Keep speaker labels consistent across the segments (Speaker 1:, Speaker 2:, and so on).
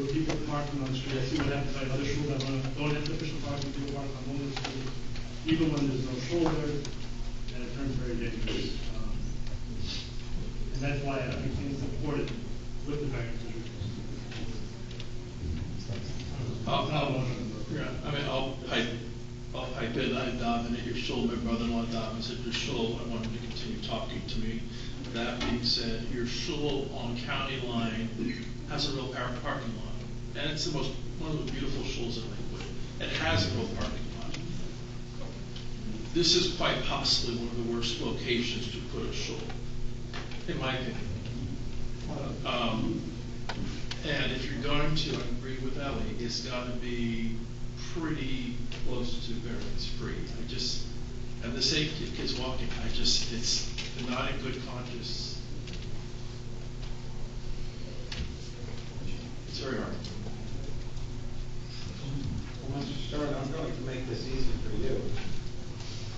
Speaker 1: parking on the street, I see what happens at other schools that wanna, don't have official parking, people park on Mullen Street, even when there's no shoulder, and it turns very dangerous. Um, And that's why I think supported with the variance.
Speaker 2: I'll, I'll, yeah, I mean, I'll, I, I'll- I did, I nominated your Shul, my brother-in-law nominated your Shul, I wanted to continue talking to me. That being said, your Shul on county line has a real par- parking lot, and it's the most, one of the beautiful Shuls in Lakewood, it has a real parking lot. This is quite possibly one of the worst locations to put a Shul, in my opinion. Um, and if you're going to, I agree with Ellie, it's gotta be pretty close to variance free. I just, and the safety of kids walking, I just, it's not in good conscience. It's very hard.
Speaker 3: Sean, I'm going to make this easy for you.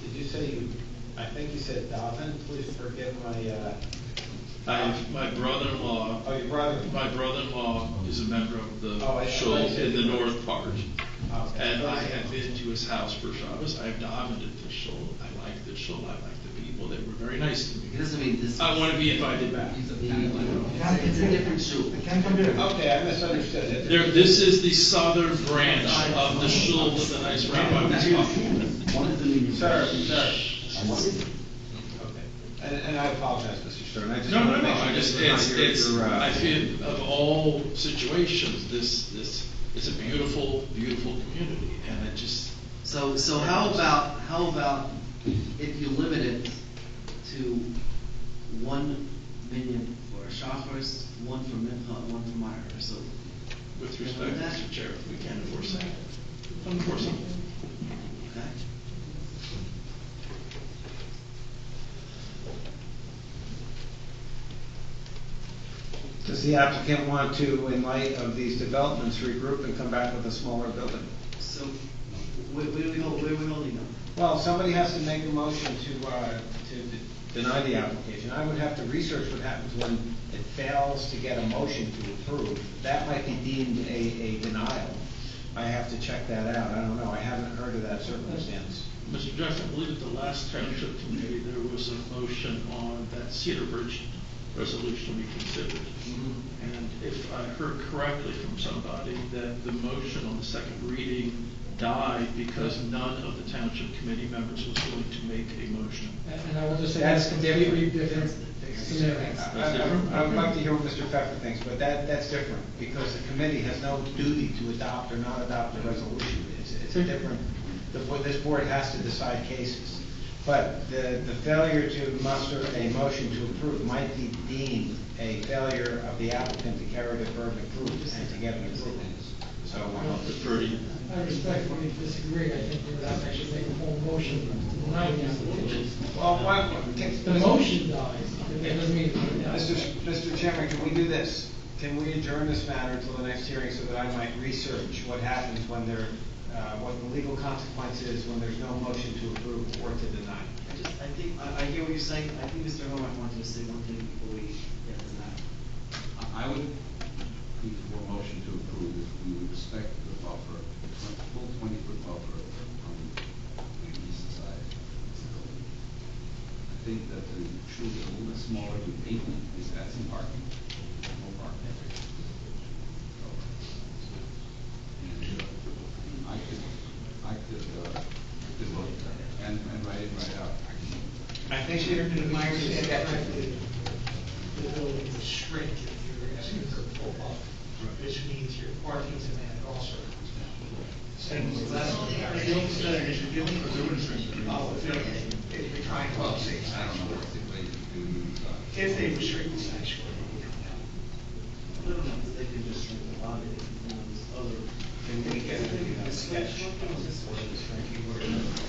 Speaker 3: Did you say you, I think you said Dobbin, please forgive my, uh,
Speaker 2: I, my brother-in-law,
Speaker 3: oh, your brother.
Speaker 2: my brother-in-law is a member of
Speaker 3: Oh, I-
Speaker 2: the
Speaker 3: I
Speaker 2: shul
Speaker 3: said-
Speaker 2: in the north part.
Speaker 3: Okay.
Speaker 2: And I have been to his house for Shabbos, I have dominated the shul, I like the shul, I like the people, they were very nice to me.
Speaker 4: It doesn't mean this.
Speaker 2: I want to be invited back.
Speaker 4: It's a different shoe.
Speaker 3: Okay, I misunderstood it.
Speaker 2: There, this is the southern branch of the shul with the nice rabbi was talking about.
Speaker 4: One is the meaning.
Speaker 3: Sir, sir.
Speaker 4: And one is-
Speaker 3: Okay. And, and I apologize, Mr. Stern, I just.
Speaker 2: No, no,
Speaker 3: wanna
Speaker 2: no,
Speaker 3: make sure
Speaker 2: I
Speaker 3: this
Speaker 2: just,
Speaker 3: is not
Speaker 2: it's,
Speaker 3: your-
Speaker 2: it's,
Speaker 3: your, uh,
Speaker 2: I feel of all situations, this, this, it's a beautiful, beautiful community, and it just,
Speaker 4: So, so how about, how about if you limit it to one minion for Shacharis, one for Mincha, and one for Meyer, so.
Speaker 2: with respect, Mr. Chair, we can't enforce that. Unenforceable.
Speaker 4: Okay?
Speaker 3: Does the applicant want to, in light of these developments, regroup and come back with a smaller building?
Speaker 4: So, where, where do we hold, where are we holding up?
Speaker 3: Well, somebody has to make a motion to, uh, to d- deny the application. I would have to research what happens when it fails to get a motion to approve. That might be deemed a, a denial. I have to check that out. I don't know. I haven't heard of that circumstance.
Speaker 2: Mr. Jackson, I believe at the last township committee, there was a motion on that Cedar Bridge resolution we considered. And if I heard correctly from somebody, that the motion on the second reading died because none of the township committee members was willing to make a motion.
Speaker 5: And I will just say, that's completely different scenario.
Speaker 3: I, I- I would like to hear what Mr. Pfeffer thinks, but that, that's different, because the committee has no duty to adopt or not adopt a resolution. It's, it's a different, the, bo- this board has to decide cases. But the, the failure to muster a motion to approve might be deemed a failure of the applicant to carry the burden of proof and to get an approval. So,
Speaker 2: I'll defer to you.
Speaker 5: I respectfully disagree, I think we would have to actually make a whole motion to deny the application.
Speaker 3: well, why,
Speaker 5: The motion dies, but that doesn't mean.
Speaker 3: Mr. Sh- Mr. Chairman, can we do this? Can we adjourn this matter until the next hearing so that I might research what happens when there, uh, what the legal consequence is when there's no motion to approve or to deny?
Speaker 4: I just, I think, I, I hear what you're saying, I think Mr. Hobart wanted to say one thing before we get to that.
Speaker 6: I I would be for a motion to approve if we would respect the buffer, the twen- full twenty-foot buffer on the east side. of the building. I think that the shoe is a little bit smaller than eight, is that's in parking, no parking. And, uh, I could, I could, uh, I could look and, and write it right out.
Speaker 3: I think you're, my
Speaker 7: the building would shrink if you're asking for a full buffer, which means your parking's in that also comes down. Oh, if you're- If you're trying to
Speaker 6: Well, I
Speaker 7: save
Speaker 6: don't know
Speaker 7: sanctuary,
Speaker 6: what's the way to do. uh,
Speaker 7: if they restrict the sanctuary, it would come down.
Speaker 4: I don't know, but they can just shrink the lobby, they can, do this other.
Speaker 3: Can we get, you know, sketch?